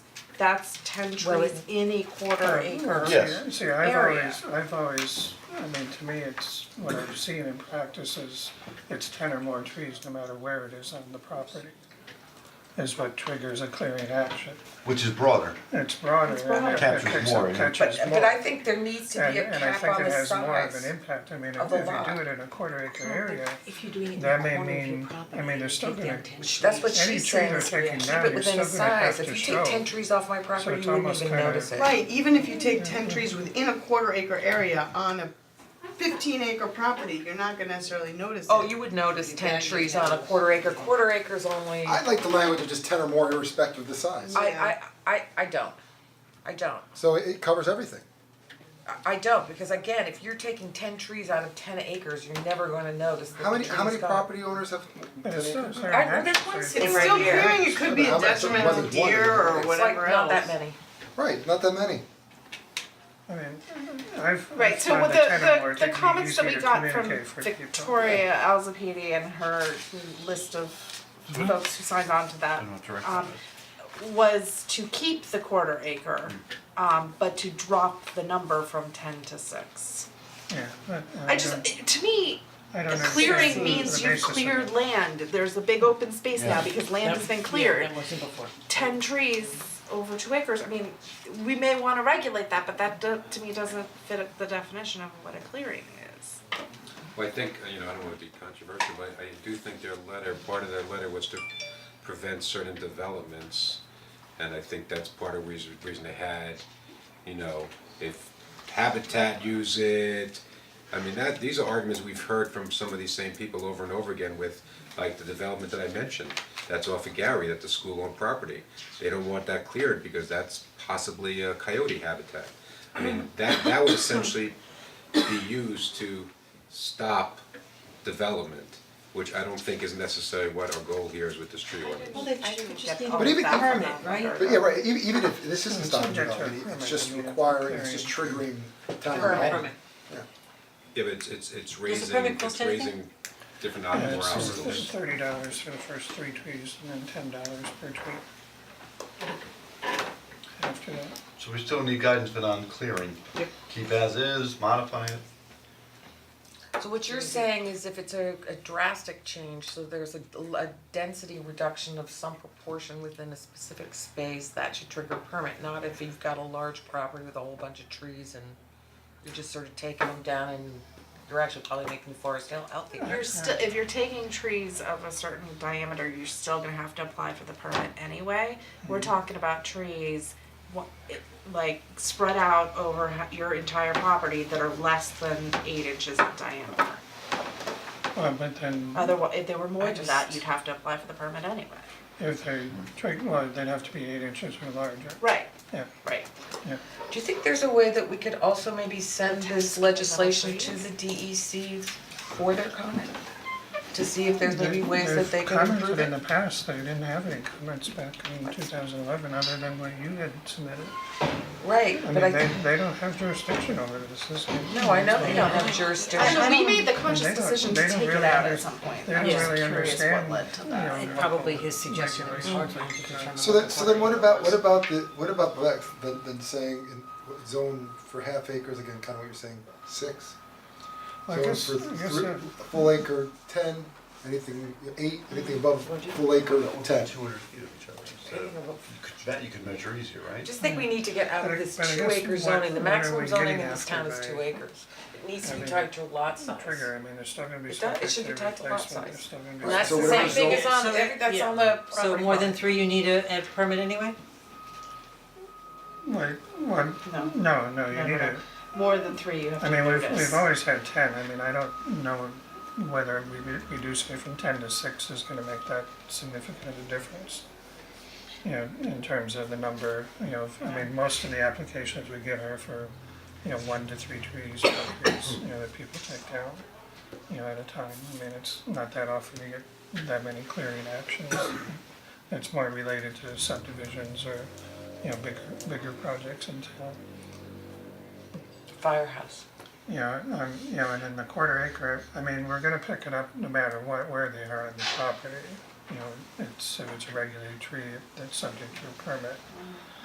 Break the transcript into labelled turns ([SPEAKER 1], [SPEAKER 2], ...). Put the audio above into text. [SPEAKER 1] that's ten
[SPEAKER 2] Well,
[SPEAKER 1] trees in a quarter acre.
[SPEAKER 3] Yeah.
[SPEAKER 4] See, see, I've
[SPEAKER 1] area.
[SPEAKER 4] always, I've always, I mean, to me, it's, what I've seen in practice is, it's ten or more trees, no matter where it is on the property, is what triggers a clearing action.
[SPEAKER 3] which is broader.
[SPEAKER 4] It's broader, and
[SPEAKER 1] broader.
[SPEAKER 4] it
[SPEAKER 3] Captures
[SPEAKER 4] catches,
[SPEAKER 3] more,
[SPEAKER 4] more.
[SPEAKER 3] yeah.
[SPEAKER 4] catches
[SPEAKER 2] But uh,
[SPEAKER 4] more.
[SPEAKER 2] but I think there needs to
[SPEAKER 4] And
[SPEAKER 2] be a
[SPEAKER 4] and I
[SPEAKER 2] cap
[SPEAKER 4] think
[SPEAKER 2] on the
[SPEAKER 4] it has
[SPEAKER 2] size.
[SPEAKER 4] more of an impact, I mean, if
[SPEAKER 2] of the
[SPEAKER 4] if you
[SPEAKER 2] lot.
[SPEAKER 4] do it in a quarter acre area,
[SPEAKER 1] If you're doing it in
[SPEAKER 4] That
[SPEAKER 1] the
[SPEAKER 4] may
[SPEAKER 1] corner of your
[SPEAKER 4] mean- I
[SPEAKER 1] property,
[SPEAKER 4] mean, they're
[SPEAKER 1] you
[SPEAKER 4] still
[SPEAKER 1] take
[SPEAKER 4] gonna-
[SPEAKER 1] down 10 trees.
[SPEAKER 2] That's what
[SPEAKER 4] Any
[SPEAKER 2] she's
[SPEAKER 4] tree
[SPEAKER 2] saying,
[SPEAKER 4] they're
[SPEAKER 2] is
[SPEAKER 4] taking
[SPEAKER 2] keep
[SPEAKER 4] now,
[SPEAKER 2] it
[SPEAKER 4] you're
[SPEAKER 2] within
[SPEAKER 4] still
[SPEAKER 2] a
[SPEAKER 4] gonna
[SPEAKER 2] size,
[SPEAKER 4] have to
[SPEAKER 2] if you take
[SPEAKER 4] show.
[SPEAKER 2] ten trees off my property,
[SPEAKER 4] it's
[SPEAKER 2] you wouldn't
[SPEAKER 4] almost
[SPEAKER 2] even
[SPEAKER 4] kinda-
[SPEAKER 2] notice it.
[SPEAKER 5] Right, even if you take ten trees within a quarter acre area on a fifteen acre property, you're not gonna necessarily notice it.
[SPEAKER 2] Oh, you would notice ten trees on a quarter acre, quarter acres only,
[SPEAKER 6] I
[SPEAKER 2] I
[SPEAKER 6] like the language of just ten or more irrespective of the size.
[SPEAKER 2] I I I don't, I don't.
[SPEAKER 6] So it it covers everything.
[SPEAKER 2] I- I don't, because again, if you're taking ten trees out of ten acres, you're never gonna notice that
[SPEAKER 6] How
[SPEAKER 2] the
[SPEAKER 6] many,
[SPEAKER 2] tree's
[SPEAKER 6] how many
[SPEAKER 2] gone.
[SPEAKER 6] property owners have ten
[SPEAKER 4] But it's still a
[SPEAKER 6] acres?
[SPEAKER 4] clearing
[SPEAKER 2] I- well,
[SPEAKER 4] action,
[SPEAKER 2] there's
[SPEAKER 4] so
[SPEAKER 2] one
[SPEAKER 4] you-
[SPEAKER 2] sitting
[SPEAKER 5] It's
[SPEAKER 2] right
[SPEAKER 5] still
[SPEAKER 2] here.
[SPEAKER 5] clearing, it could be
[SPEAKER 6] How
[SPEAKER 5] a
[SPEAKER 6] about
[SPEAKER 5] detriment
[SPEAKER 6] someone
[SPEAKER 5] to
[SPEAKER 6] that's one
[SPEAKER 5] deer
[SPEAKER 6] acre?
[SPEAKER 5] or
[SPEAKER 2] It's
[SPEAKER 6] It's
[SPEAKER 2] like
[SPEAKER 5] whatever
[SPEAKER 2] not
[SPEAKER 5] else.
[SPEAKER 2] that many.
[SPEAKER 6] Right, not that many.
[SPEAKER 4] I mean, I've, I've
[SPEAKER 7] Right, so
[SPEAKER 4] found
[SPEAKER 7] with
[SPEAKER 4] the ten or more
[SPEAKER 7] the, the,
[SPEAKER 4] to
[SPEAKER 7] the
[SPEAKER 4] be
[SPEAKER 7] comments that
[SPEAKER 4] easier
[SPEAKER 7] we
[SPEAKER 4] to
[SPEAKER 7] got from
[SPEAKER 4] communicate for people.
[SPEAKER 7] Victoria Alzapedi and her list of folks who signed on to that, um, was to keep the quarter acre, um, but to drop the number from ten to six.
[SPEAKER 4] Yeah, but
[SPEAKER 7] I
[SPEAKER 4] I
[SPEAKER 7] just,
[SPEAKER 4] don't,
[SPEAKER 7] it- to me,
[SPEAKER 4] I
[SPEAKER 7] a
[SPEAKER 4] don't understand
[SPEAKER 7] clearing
[SPEAKER 4] the-
[SPEAKER 7] means
[SPEAKER 4] the
[SPEAKER 7] you've
[SPEAKER 4] basis of it.
[SPEAKER 7] cleared land, there's a big open space now because land has been cleared.
[SPEAKER 2] wasn't before.
[SPEAKER 7] ten trees over two acres, I mean, we may wanna regulate that, but that do, to me doesn't fit the definition of what a clearing is.
[SPEAKER 8] Well, I think, uh, you know, I don't wanna be controversial, but I do think their letter, part of their letter was to prevent certain developments. And I think that's part of reason, reason they had, you know, if Habitat use it. I mean, that, these are arguments we've heard from some of these same people over and over again with, like, the development that I mentioned. That's off of Gary, that the school owned property. They don't want that cleared because that's possibly a coyote habitat. I mean, that, that would essentially be used to stop development, which I don't think is necessarily what our goal here is with this tree ordinance.
[SPEAKER 1] Well, they should just be
[SPEAKER 6] But even-
[SPEAKER 1] permanent, right?
[SPEAKER 6] But yeah, right, even even if this isn't stopping
[SPEAKER 4] subject to
[SPEAKER 6] development,
[SPEAKER 4] a
[SPEAKER 6] it's
[SPEAKER 4] permit,
[SPEAKER 6] just
[SPEAKER 4] I mean, it's
[SPEAKER 6] requiring, it's
[SPEAKER 4] clearing.
[SPEAKER 6] just triggering town
[SPEAKER 2] Permit.
[SPEAKER 6] hall.
[SPEAKER 2] Permit.
[SPEAKER 8] Yeah, but it's it's it's
[SPEAKER 1] Does the
[SPEAKER 8] raising,
[SPEAKER 1] permit
[SPEAKER 8] it's
[SPEAKER 1] cost anything?
[SPEAKER 8] raising different
[SPEAKER 4] Yeah,
[SPEAKER 8] obstacles.
[SPEAKER 4] it's- it's thirty dollars for the first three trees and then ten dollars per tree. After that.
[SPEAKER 3] So we still need guidance but on clearing. Keep as is, modify it.
[SPEAKER 2] So what you're saying is if it's a a drastic change, so there's a a density reduction of some proportion within a specific space, that should trigger a permit, not if you've got a large property with a whole bunch of trees and you're just sort of taking them down and you're actually probably making the forest heal- healthier.
[SPEAKER 7] You're still, if you're taking trees of a certain diameter, you're still gonna have to apply for the permit anyway. We're talking about trees, wha- it- like spread out over ha- your entire property that are less than eight inches in diameter.
[SPEAKER 4] Well, Uh, but then
[SPEAKER 7] Otherwise, if they were more
[SPEAKER 2] I
[SPEAKER 7] than that,
[SPEAKER 2] just-
[SPEAKER 7] you'd have to apply for the permit anyway.
[SPEAKER 4] if they tree, well, they'd have to be eight inches or larger.
[SPEAKER 7] Right,
[SPEAKER 4] Yeah,
[SPEAKER 7] right.
[SPEAKER 4] yeah.
[SPEAKER 2] Do you think there's a way that we could also maybe send this legislation to the DEC for their comment? To see if there's maybe
[SPEAKER 4] They-
[SPEAKER 2] ways that they
[SPEAKER 4] They've
[SPEAKER 2] can improve
[SPEAKER 4] commented
[SPEAKER 2] it?
[SPEAKER 4] in the past, they didn't have any comments back in two thousand eleven, other than what you had submitted.
[SPEAKER 2] Right,
[SPEAKER 4] I
[SPEAKER 2] but I
[SPEAKER 4] mean, they
[SPEAKER 2] think,
[SPEAKER 4] they don't have jurisdiction over this, this is.
[SPEAKER 2] no, I know they don't have
[SPEAKER 7] I
[SPEAKER 2] jurisdiction.
[SPEAKER 7] know, we made the
[SPEAKER 4] they
[SPEAKER 7] conscious
[SPEAKER 4] don't-
[SPEAKER 7] decision
[SPEAKER 4] they
[SPEAKER 7] to
[SPEAKER 4] don't
[SPEAKER 7] take it
[SPEAKER 4] really
[SPEAKER 7] out
[SPEAKER 4] under-
[SPEAKER 7] at some point.
[SPEAKER 4] They don't
[SPEAKER 7] I'm just
[SPEAKER 4] really
[SPEAKER 7] curious
[SPEAKER 4] understand,
[SPEAKER 7] what led to
[SPEAKER 4] you
[SPEAKER 7] that.
[SPEAKER 4] know,
[SPEAKER 9] And probably his suggestion was
[SPEAKER 4] regulations.
[SPEAKER 9] hard
[SPEAKER 2] Mm.
[SPEAKER 9] for him to determine.
[SPEAKER 6] So
[SPEAKER 9] what
[SPEAKER 6] then,
[SPEAKER 9] the
[SPEAKER 6] so then what
[SPEAKER 9] quarter
[SPEAKER 6] about,
[SPEAKER 9] acre
[SPEAKER 6] what
[SPEAKER 9] was.
[SPEAKER 6] about the, what about Lex, then then saying in what- zone for half acres, again, kinda what you're saying, six?
[SPEAKER 4] I
[SPEAKER 6] Zone
[SPEAKER 4] guess-
[SPEAKER 6] for
[SPEAKER 4] I guess
[SPEAKER 6] three-
[SPEAKER 4] that-
[SPEAKER 6] full acre, ten, anything, eight, anything above full acre, ten.
[SPEAKER 3] Two hundred feet of each other, so you could, that you could measure easier,
[SPEAKER 2] I
[SPEAKER 3] right?
[SPEAKER 2] just think we need to get out
[SPEAKER 4] But I-
[SPEAKER 2] of this
[SPEAKER 4] but I
[SPEAKER 2] two
[SPEAKER 4] guess
[SPEAKER 2] acre
[SPEAKER 4] what-
[SPEAKER 2] zoning,
[SPEAKER 4] what
[SPEAKER 2] the
[SPEAKER 4] are
[SPEAKER 2] maximum
[SPEAKER 4] we
[SPEAKER 2] zoning
[SPEAKER 4] getting
[SPEAKER 2] in this
[SPEAKER 4] after
[SPEAKER 2] town is
[SPEAKER 4] by
[SPEAKER 2] two acres. It needs to be
[SPEAKER 4] having
[SPEAKER 2] tied to a lot size.
[SPEAKER 4] Trigger, I mean, there's still gonna be
[SPEAKER 2] It
[SPEAKER 4] some.
[SPEAKER 2] does- it should be tied to lot size. And that's
[SPEAKER 6] So
[SPEAKER 2] the
[SPEAKER 6] whatever
[SPEAKER 2] same thing as
[SPEAKER 6] zone-
[SPEAKER 2] on,
[SPEAKER 9] So
[SPEAKER 2] every- that's
[SPEAKER 9] yeah.
[SPEAKER 2] on the property
[SPEAKER 9] So more than
[SPEAKER 2] line.
[SPEAKER 9] three, you need a, a permit anyway?
[SPEAKER 4] Wait, what, no, no, you need a,
[SPEAKER 7] More than three, you have
[SPEAKER 4] I
[SPEAKER 7] to
[SPEAKER 4] mean,
[SPEAKER 7] notice.
[SPEAKER 4] we've, we've always had ten, I mean, I don't know whether we re- reducing it from ten to six is gonna make that significant a difference. You know, in terms of the number, you know, if- I mean, most of the applications we get are for, you know, one to three trees, you know, that people take down, you know, at a time, I mean, it's not that often you get that many clearing actions. It's more related to subdivisions or, you know, bigger, bigger projects in town.
[SPEAKER 2] Firehouse.
[SPEAKER 4] You know, um, you know, and in the quarter acre, I mean, we're gonna pick it up no matter what, where they are on the property. You know, it's, if it's a regulated tree, that's subject to a permit.